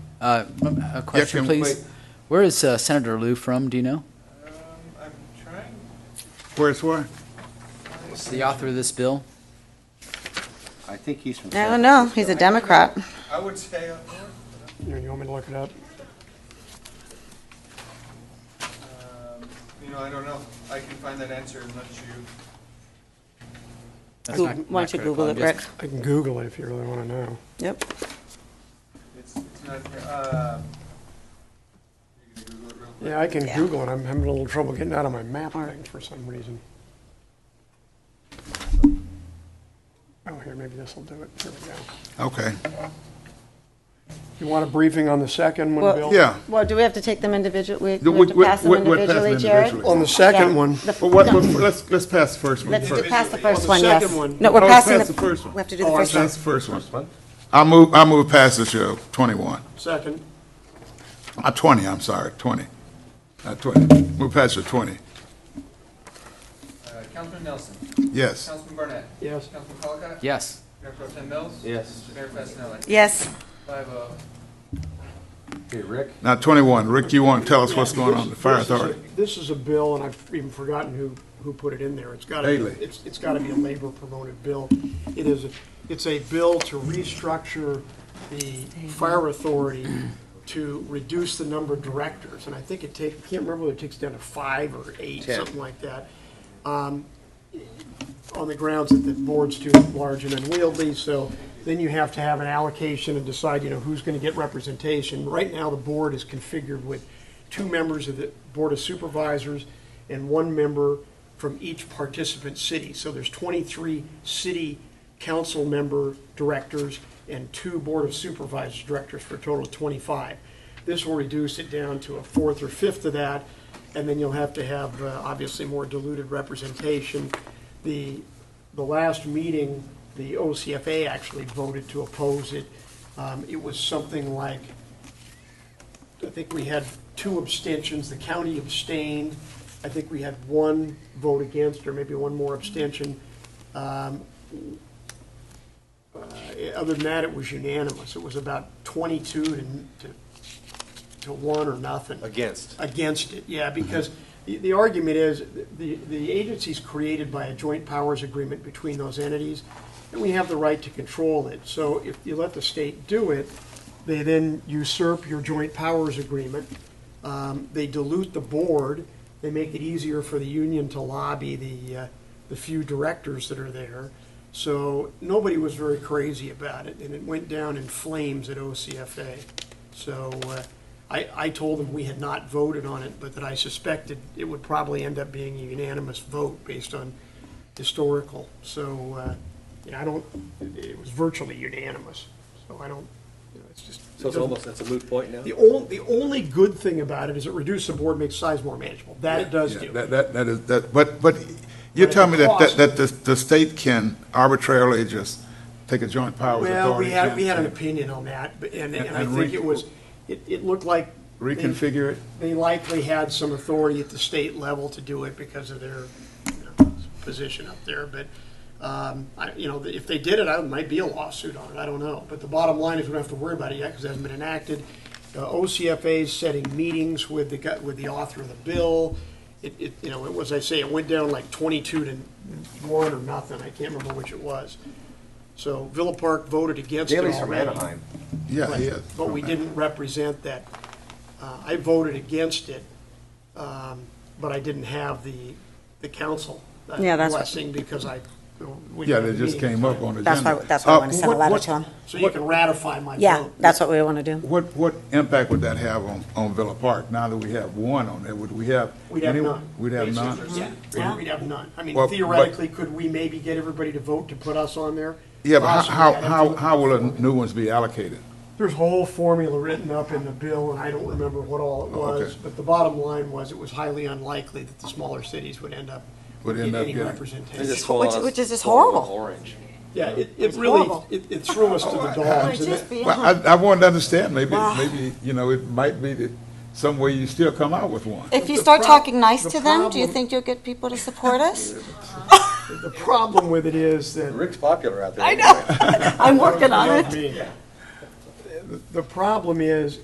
Uh, m- A question, can- please. wait. Where is uh, Senator Lou from, do you know? Um, I'm trying. Where's where? Is the author of this bill? I think he's from. I don't know. He's a Democrat. I would say up north. You you want me to look it up? Um, You know, I don't know. I can find that answer unless you. That's Why not- not don't you critical. Google I'm it, just- Rick? I can Google it if you really want to know. Yep. It's, it's not here. Um, You can Google it real quick. Yeah, I can Yeah. Google it. I'm having a little trouble getting out of my map thing for some reason. Oh, here, maybe this will do it. Here we go. Okay, You want a briefing on the second one, Well- Bill? yeah. Well, do we have to take them individually? The- We have we- to we- pass them we- we'll pass them individually, Jared? individually. On the second Yeah. one, The- But what, no. what- let's, let's pass the first one Let's do, first. pass the first the one, yes. second one. No, we're Oh, passing pass the first the, one. we have to do the Oh, I first one. That's the first one. one? I move, I move past the show, 21. second, Uh, 20, I'm sorry, 20. Uh, 20, move past the 20. Uh, Councilman Nelson. Yes. Councilman Barnett. yes. Councilman Colacott. Yes. Mayor Pro Tem Mills. Yes. Mayor Fessinelli. Yes. Five oh. Hey, Rick. Now, 21, Rick, you want to tell us what's going on in the fire This is a- authority? This is a bill, and I've even forgotten who, who put it in there. It's got to, Bailey. it's, it's got to be a labor-promoted bill. It is, a- it's a bill to restructure the fire authority to reduce the number of directors. And I think it takes, I can't remember whether it takes down to five or eight, Ten. something like that. Um, On the grounds that the board's too large and unwieldy, so then you have to have an allocation and decide, you know, who's going to get representation. Right now, the board is configured with two members of the Board of Supervisors and one member from each participant city. So there's 23 city council member directors and two Board of Supervisors directors for a total of 25. This will reduce it down to a fourth or fifth of that, and then you'll have to have, uh, obviously, more diluted representation. The, the last meeting, the OCFA actually voted to oppose it. Um, It was something like I think we had two abstentions, the county abstained. I think we had one vote against, or maybe one more abstention. Um, uh, Other than that, it was unanimous. It was about 22 to, to- to one or nothing Against. against it, yeah, because the, the argument is, the, the agency's created by a joint powers agreement between those entities, and we have the right to control it. So if you let the state do it, they then usurp your joint powers agreement. Um, they dilute the board, they make it easier for the union to lobby the, uh, the few directors that are there. So nobody was very crazy about it, and it went down in flames at OCFA. So, uh, I, I told them we had not voted on it, but that I suspected it would probably end up being a unanimous vote based on historical. So, uh, you know, I don't, it was virtually unanimous, so I don't, you know, it's just. So it's almost, that's a moot point now? The only, the only good thing about it is it reduces the board, makes size more manageable. That it does Yeah, do. That, that, that is, that, but, but you're telling me that, that, that the, the state can arbitrarily just take a joint powers authority? Well, we had, and- we had an opinion on that, but- and, and I And think it re- was, it, it looked like. they- Reconfigure it? They likely had some authority at the state level to do it because of their, you know, position up there, but, um, I, you know, if they did it, I might be a lawsuit on it, I don't know. But the bottom line is we don't have to worry about it yet, because it hasn't been enacted. Uh, OCFA's setting meetings with the, gu- with the author of the bill. It, it, you know, it was, I say, it went down like twenty-two to one or nothing, I can't remember which it was. So Villa Park voted against it Daley's from already. Anaheim. Yeah, Right, yeah. But we didn't represent that. Uh, I voted against it, um, but I didn't have the, the council uh, Yeah, that's what- blessing because I. we Yeah, didn't they just have the meeting. came up on the That's agenda. why, that's why I Uh, want to send a what- letter what- to him. So you can ratify my vote. Yeah, that's what we want to do. What, what impact would that have on, on Villa Park, now that we have one on there? Would we have? We'd have any- none. We'd have basically. none? Yeah, Yeah. we'd have none. I mean, Well, but- theoretically, could we maybe get everybody to vote to put us on there? Yeah, but Possibly, how, I'd have how, to- how will the new ones be allocated? There's a whole formula written up in the bill, and I don't remember what all it Oh, okay. was, but the bottom line was it was highly unlikely that the smaller cities would end up Would with end up any getting- representation. Which- which is just horrible. Orange. Yeah, it, it It's really, horrible. it, it threw us to the dogs. and that- Well, I, I wanted to understand, maybe, maybe, you know, it might be that some way you still come out with one. If you the start prob- talking nice the to them, do you problem- think you'll get people to support us? The problem with it is that Rick's popular out there. I know. I'm working on it. The problem is,